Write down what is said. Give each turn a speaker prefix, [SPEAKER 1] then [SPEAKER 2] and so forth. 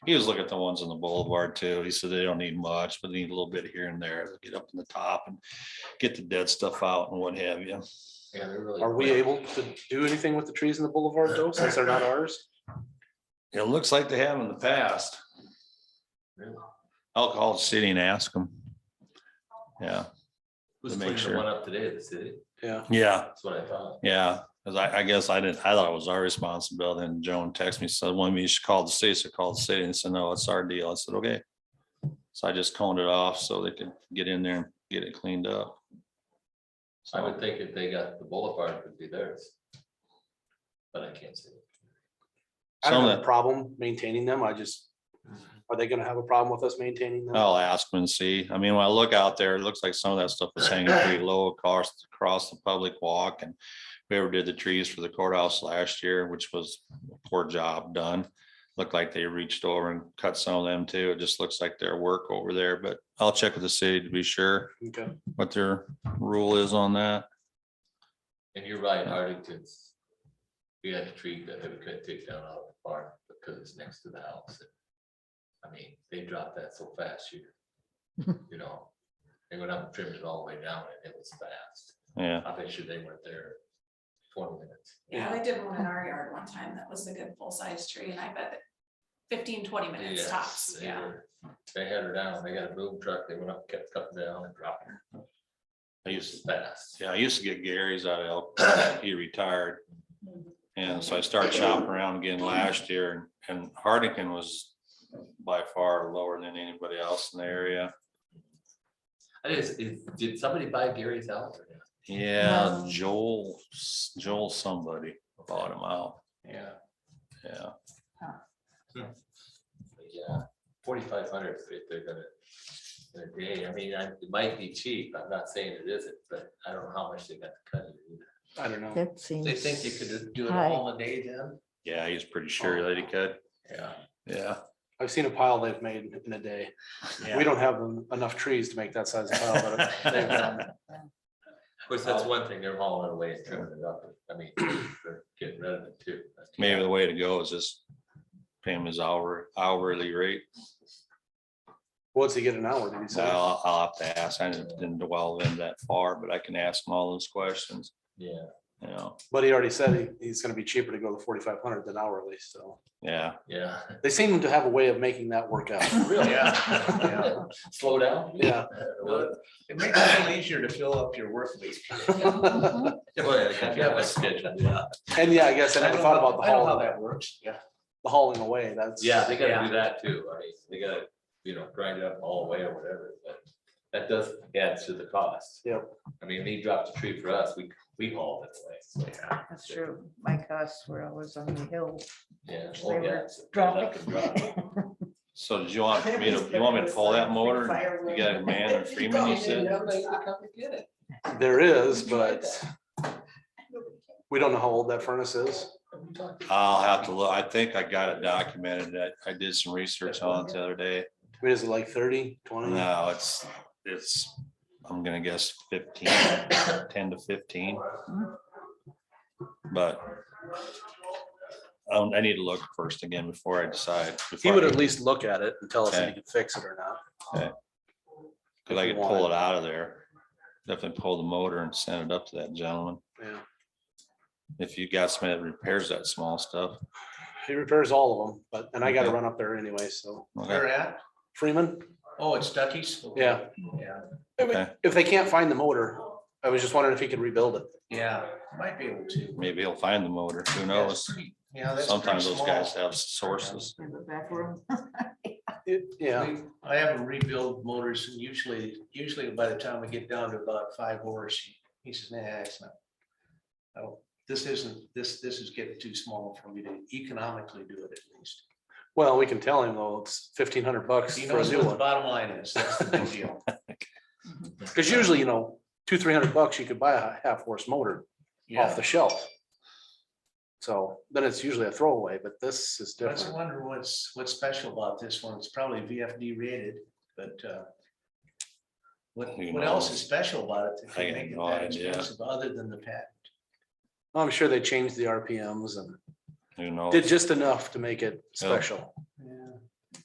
[SPEAKER 1] He was looking at the ones on the boulevard too. He said they don't need much, but they need a little bit here and there to get up in the top and get the dead stuff out and what have you.
[SPEAKER 2] Yeah, they're really.
[SPEAKER 3] Are we able to do anything with the trees in the boulevard though, since they're not ours?
[SPEAKER 1] It looks like they have in the past.
[SPEAKER 2] Really?
[SPEAKER 1] I'll call the city and ask them. Yeah,
[SPEAKER 2] Who's
[SPEAKER 1] to make
[SPEAKER 2] cleaning the
[SPEAKER 1] sure.
[SPEAKER 2] one up today at the city?
[SPEAKER 3] Yeah,
[SPEAKER 1] yeah,
[SPEAKER 2] That's what I thought.
[SPEAKER 1] yeah. Cause I, I guess I didn't, I thought it was our responsibility and Joan texted me, said, well, you should call the city. So I called the city and said, no, it's our deal. I said, okay. So I just coned it off so they could get in there and get it cleaned up.
[SPEAKER 2] I would think if they got the boulevard, it would be theirs. But I can't see it.
[SPEAKER 3] I don't
[SPEAKER 1] Some
[SPEAKER 3] have
[SPEAKER 1] of
[SPEAKER 3] a
[SPEAKER 1] it,
[SPEAKER 3] problem maintaining them. I just, are they gonna have a problem with us maintaining them?
[SPEAKER 4] Oh.
[SPEAKER 1] I'll ask them and see. I mean, when I look out there, it looks like some of that stuff is hanging pretty low across, across the public walk and we ever did the trees for the courthouse last year, which was a poor job done. Looked like they reached over and cut some of them too. It just looks like their work over there, but I'll check with the city to be sure
[SPEAKER 3] Okay,
[SPEAKER 1] what their rule is on that.
[SPEAKER 2] And you're right, Hardington's. We had a tree that they could take down out of the park because it's next to the house. I mean, they dropped that so fast here. You know, they went up and trimmed it all the way down and it was fast.
[SPEAKER 1] Yeah,
[SPEAKER 2] I bet you they weren't there twenty minutes.
[SPEAKER 3] Yeah.
[SPEAKER 5] Yeah, I did one in our yard one time that was a good full-size tree and I bet that 15, 20 minutes
[SPEAKER 2] Yes,
[SPEAKER 5] tops,
[SPEAKER 2] they
[SPEAKER 5] yeah.
[SPEAKER 2] were- They had her down, they got a boom truck, they went up, kept cutting down and dropping her.
[SPEAKER 1] I
[SPEAKER 2] It
[SPEAKER 1] used,
[SPEAKER 2] was fast.
[SPEAKER 1] yeah, I used to get Gary's out of Elk, Grove. he retired. And
[SPEAKER 3] Mm-hmm.
[SPEAKER 1] so I started shopping around again last year and Hardican was by far lower than anybody else in the area.
[SPEAKER 2] I just, is- did somebody buy Gary's house or not?
[SPEAKER 1] Yeah,
[SPEAKER 5] Wow.
[SPEAKER 1] Joel, Joel somebody bought him out.
[SPEAKER 2] Yeah.
[SPEAKER 1] Yeah,
[SPEAKER 2] Yeah, forty-five hundred if they're gonna, in a day, I mean, I- it might be cheap, I'm not saying it isn't, but I don't know how much they got to cut. it either.
[SPEAKER 3] I don't know.
[SPEAKER 6] That seems.
[SPEAKER 2] They think you could do it
[SPEAKER 6] high.
[SPEAKER 2] all in a day then?
[SPEAKER 1] yeah, he's pretty sure that he could.
[SPEAKER 2] Yeah.
[SPEAKER 1] Yeah.
[SPEAKER 3] I've seen a pile they've made in a day. We don't have en- enough trees to make that size of pile, but they've done.
[SPEAKER 2] Of course, that's one thing, they're hauling it away and trimming it up, I mean, they're getting rid of it too. That's-
[SPEAKER 1] Maybe the way to go is just pay him his hour, hourly rate.
[SPEAKER 3] what's he get an hour? Did he
[SPEAKER 1] So
[SPEAKER 3] say?
[SPEAKER 4] uh,
[SPEAKER 1] I'll, I'll have to ask. I didn't didn't dwell in that far, but I can ask him all those questions,
[SPEAKER 2] Yeah,
[SPEAKER 1] you know,
[SPEAKER 3] But he already said he, he's gonna be cheaper to go to forty-five hundred than hourly, so.
[SPEAKER 1] yeah.
[SPEAKER 2] yeah.
[SPEAKER 3] They seem to have a way of making that work out.
[SPEAKER 2] Really?
[SPEAKER 4] Yeah.
[SPEAKER 2] Slow down?
[SPEAKER 3] Yeah.
[SPEAKER 2] Well,
[SPEAKER 4] It makes it a little easier to fill up your work week.
[SPEAKER 2] yeah, yeah, my schedule, yeah.
[SPEAKER 3] And yeah, I guess I
[SPEAKER 4] I
[SPEAKER 3] never
[SPEAKER 4] don't
[SPEAKER 3] thought
[SPEAKER 4] know-
[SPEAKER 3] about the
[SPEAKER 4] I don't know how
[SPEAKER 3] hauling,
[SPEAKER 4] that works, yeah.
[SPEAKER 3] the hauling away. That's.
[SPEAKER 2] Yeah, they gotta
[SPEAKER 4] Yeah.
[SPEAKER 2] do that too, I mean, they gotta, you know, grind it up all the way or whatever, but that does add to the cost.
[SPEAKER 3] Yep.
[SPEAKER 2] I mean, they dropped a tree for us, we, we hauled it away, so,
[SPEAKER 6] That's true. My costs were always on the hill.
[SPEAKER 2] yeah.
[SPEAKER 6] They
[SPEAKER 2] oh,
[SPEAKER 6] were
[SPEAKER 2] yeah, so they
[SPEAKER 6] dropping.
[SPEAKER 2] left and dropped.
[SPEAKER 1] So did you want me to, you want me to pull that motor? You got a man in Freeman, you said?
[SPEAKER 3] There is, but we don't know how old that furnace is.
[SPEAKER 1] I'll have to look. I think I got it documented. that I did some research on it the other day.
[SPEAKER 3] I mean, is it like 30, 20?
[SPEAKER 1] No, it's, it's, I'm gonna guess 15, 10 to fifteen. But um, I need to look first again before I decide.
[SPEAKER 3] He
[SPEAKER 1] before
[SPEAKER 3] would
[SPEAKER 1] I-
[SPEAKER 3] at least look at it and tell us if he
[SPEAKER 1] Okay.
[SPEAKER 3] can fix it or not.
[SPEAKER 1] Cause I could pull it out of there. Definitely pull the motor and send it up to that gentleman.
[SPEAKER 3] Yeah.
[SPEAKER 1] If you got somebody that repairs that small stuff.
[SPEAKER 3] He repairs all of them, but, and I gotta
[SPEAKER 1] Okay.
[SPEAKER 3] run up there anyway, so.
[SPEAKER 1] Okay,
[SPEAKER 4] Where at?
[SPEAKER 3] Freeman,
[SPEAKER 4] Oh, it's Ducky's?
[SPEAKER 3] yeah.
[SPEAKER 4] Yeah,
[SPEAKER 3] If we-
[SPEAKER 1] Okay.
[SPEAKER 3] If they can't find the motor, I was just wondering if he could rebuild it.
[SPEAKER 4] yeah, might be able to.
[SPEAKER 1] maybe he'll find the motor. Who knows?
[SPEAKER 4] Yeah, that's pretty
[SPEAKER 1] Sometimes those guys
[SPEAKER 4] small.
[SPEAKER 1] have sources.
[SPEAKER 6] In the back room.
[SPEAKER 3] It- Yeah,
[SPEAKER 4] We- I have them rebuild motors and usually, usually by the time we get down to about five horse, he- he says, nah, it's not. I don't, this isn't, this, this is getting too small for me to economically do it at least.
[SPEAKER 3] well, we can tell him though, it's fifteen hundred bucks
[SPEAKER 4] He
[SPEAKER 3] for a
[SPEAKER 4] knows
[SPEAKER 3] new
[SPEAKER 4] what the
[SPEAKER 3] one.
[SPEAKER 4] bottom line is, that's the big deal.
[SPEAKER 3] Cause usually, you know, two, three hundred bucks, you could buy a half horse motor off
[SPEAKER 4] Yeah,
[SPEAKER 3] the shelf. So then it's usually a throwaway, but this is
[SPEAKER 4] I was
[SPEAKER 3] different.
[SPEAKER 4] wondering what's, what's special about this one, it's probably VFD rated, but, uh. What,
[SPEAKER 1] Who
[SPEAKER 4] what else
[SPEAKER 1] knows?
[SPEAKER 4] is special about it? that
[SPEAKER 1] I got
[SPEAKER 4] could make it
[SPEAKER 1] no
[SPEAKER 4] that
[SPEAKER 1] idea.
[SPEAKER 4] expensive Other than the patent,
[SPEAKER 3] I'm sure they changed the RPMs and
[SPEAKER 1] Who knows?
[SPEAKER 3] did just enough to make it special.
[SPEAKER 4] yeah,